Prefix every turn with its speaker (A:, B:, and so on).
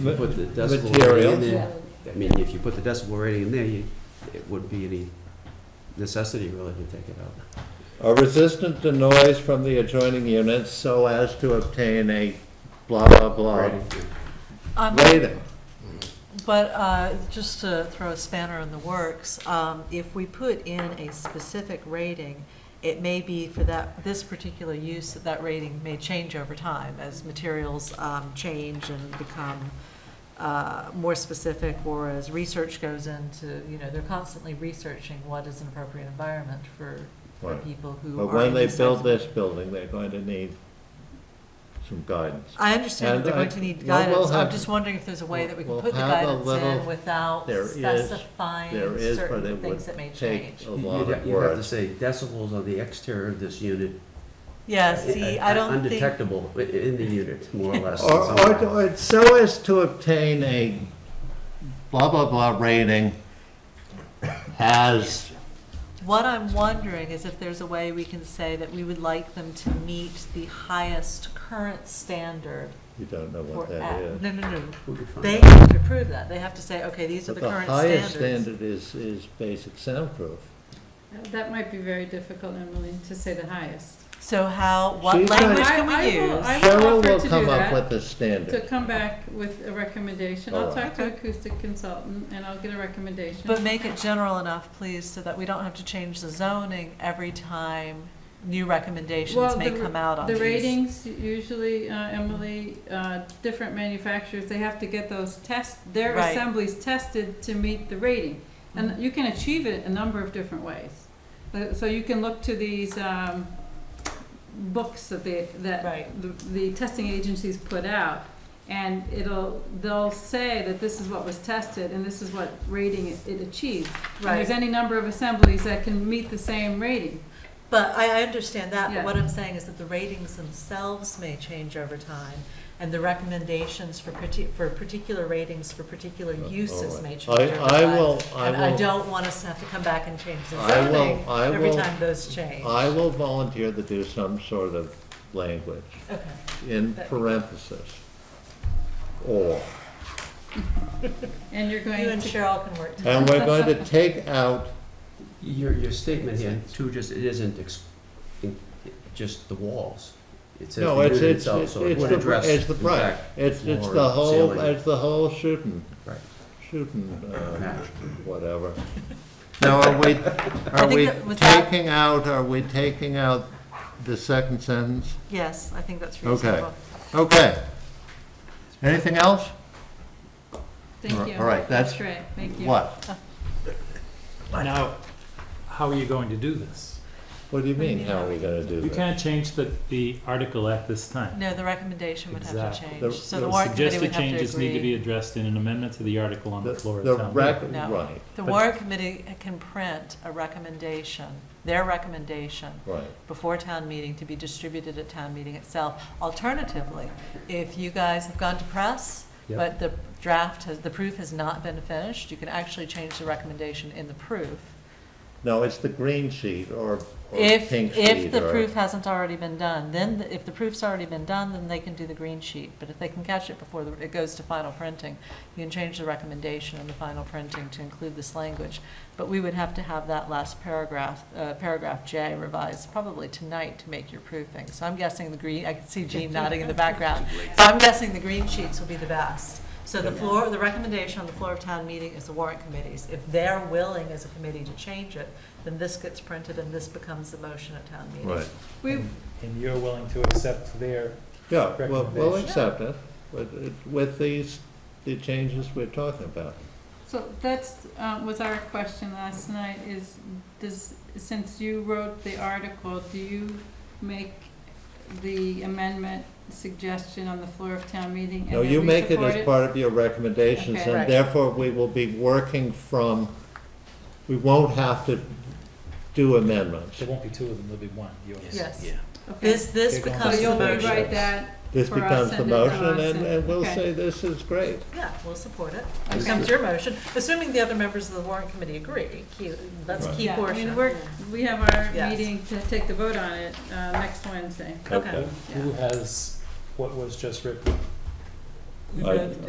A: you put the decibel rating
B: material.
A: in there, I mean, if you put the decibel rating in there, you, it would be any necessity really to take it out.
B: are resistant to noise from the adjoining units so as to obtain a blah, blah, blah
C: Um,
B: rating.
C: But uh, just to throw a spanner in the works, um, if we put in a specific rating, it may be for that, this particular use, that that rating may change over time as materials um, change and become uh, more specific, or as research goes into, you know, they're constantly researching what is an appropriate environment for for
B: Right.
C: people who are.
B: But when
C: in
B: they
C: these
B: build
C: types of-
B: this building, they're going to need some guidance.
C: I understand that they're
B: And I-
C: going to need
B: well, we'll
C: guidance, I'm
B: have-
C: just wondering if there's a way that we can
B: we'll
C: put the
B: have a
C: guidance
B: little-
C: in without
B: there is-
C: specifying
B: There is, but
C: certain
B: it would
C: things that may
B: take
C: change.
B: a
A: You'd
B: lot
A: ha-
B: of
A: you'd have to
B: work.
A: say decibels on the exterior of this unit.
B: Uh,
C: Yeah, see, I don't think,
A: Undetectable i- in the unit, more or less.
B: Or, or,
A: somehow.
B: or so as to obtain a blah, blah, blah rating as
C: what I'm wondering is if there's a way we can say that we would like them to meet the highest current standard
B: You don't know
C: for,
B: what that
C: a-
B: is.
C: no, no, no,
A: We could find
C: they
A: out.
C: have to prove that, they have to say, okay, these are
B: But
C: the
B: the
C: current
B: highest
C: standards.
B: standard is, is basic soundproof.
D: That might be very difficult, Emily, to say the highest.
C: So how, what
B: She's gonna-
C: language
D: I-
C: can
D: I
C: we
D: will-
C: use?
D: I will
B: Cheryl
D: offer
B: will
D: to do
B: come up
D: that.
B: with a
D: To
B: standard.
D: come back with a recommendation, I'll
B: All right.
D: talk to acoustic consultant and I'll get a recommendation.
C: But make it general enough, please, so that we don't have to change the zoning every time new recommendations
D: Well,
C: may
D: the ra-
C: come out on
D: The
C: these.
D: ratings, usually, uh, Emily, uh, different manufacturers, they have to get those test, their
C: Right.
D: assemblies tested to meet the rating.
C: Mm-hmm.
D: And you can achieve it a number of different ways. Uh, So you can look to these um, books that they, that
C: Right.
D: the the testing agencies put out, and it'll, they'll say that this is what was tested and this is what rating it- it achieved. And There's
C: Right.
D: any number of assemblies that can meet the same rating.
C: But I, I understand that, but
D: Yeah.
C: what I'm saying is that the ratings themselves may change over time, and the recommendations for parti, for particular ratings for particular uses may change over
B: Uh,
C: time.
B: Oh, I, I will, I
C: And I
B: will,
C: don't want us to have to come back and change the
B: I will-
C: zoning
B: I
C: every
B: will-
C: time those change.
B: I will volunteer to do some sort of language
C: Okay,
B: in
C: That-
B: parentheses. Or,
D: And you're going
C: you and
D: to
C: Cheryl can work.
B: and we're going to take out,
A: Your, your statement here too, just, it isn't ex- in- just the walls. It says
B: no,
A: the
B: it's,
A: unit
B: it's,
A: itself,
B: it's
A: so it
B: it's
A: would
B: the,
A: address.
B: it's the
A: in
B: price.
A: fact,
B: It's, it's
A: floor,
B: the whole,
A: ceiling.
B: it's the whole shooting,
A: Right.
B: shooting, uh,
A: Match.
B: whatever. Now, are we, are
C: think
B: we
C: that was that-
B: taking out, are we taking out the second sentence?
C: Yes, I think that's
B: Okay.
C: reasonable.
B: Okay. Anything else? All
D: Thank
B: right,
D: you.
B: all right, that's
D: great, thank you.
B: What?
E: Now, how are you going to do this?
B: What do you mean, how are we gonna do
E: You
B: that?
E: can't change the, the article at this time.
C: No, the recommendation would have to
E: Exactly.
C: change,
B: The-
C: so
B: the
C: the warrant committee
E: Suggested
C: would have to agree.
E: changes need to be addressed in an amendment to the article on
B: The
E: the floor
B: the
E: of town
B: rec-
E: meeting.
C: No.
B: Right,
C: The
E: But-
C: warrant committee can print a recommendation, their recommendation,
B: right.
C: before town meeting to be distributed at town meeting itself. Alternatively, if you guys have gone to press,
E: Yep.
C: but the draft has, the proof has not been finished, you can actually change the recommendation in the proof.
B: No, it's the green sheet or or
C: If,
B: pink sheet or.
C: if the proof hasn't already been done, then, the- if the proof's already been done, then they can do the green sheet. But if they can catch it before the- it goes to final printing, you can change the recommendation in the final printing to include this language. But we would have to have that last paragraph, uh, paragraph J revised probably tonight to make your proofing. So I'm guessing the green, I can see Jean nodding in the background. So I'm guessing the green sheets will be the best. So the floor, the recommendation on the floor of town meeting is the warrant committees. If they're willing as a committee to change it, then this gets printed and this becomes the motion at town meeting.
B: Right,
D: We,
E: And you're willing to accept their.
B: yeah, we'll, we'll
E: Recommendation.
B: accept it with, with these, the changes we're talking about.
D: so that's, um, was our question last night, is, does, since you wrote the article, do you make the amendment suggestion on the floor of town meeting? and
B: No,
D: then
B: you
D: we
B: make it
D: support
B: as part of your recommendations,
D: Okay.
B: and
C: Right.
B: therefore we will be working from, we won't have to do amendments.
E: There won't be two of them, there'll be one, yours.
C: Yes.
D: Okay.
C: This, this
E: They're going
D: So
C: becomes the
D: you'll
C: motion.
D: rewrite that,
B: This
D: For us
B: becomes the
D: and then
B: motion,
D: us
B: and,
D: and-
B: and we'll
D: okay.
B: say this is great.
C: Yeah, we'll support it.
D: Okay.
C: Becomes your motion, assuming the other members of the warrant committee agree. Key, that's a
B: Right.
C: key
D: yeah, I mean,
C: portion.
D: we're, we have our
C: Yes.
D: meeting to take the vote on it, uh, next Wednesday.
C: Okay.
E: Who has what was just written?
B: I-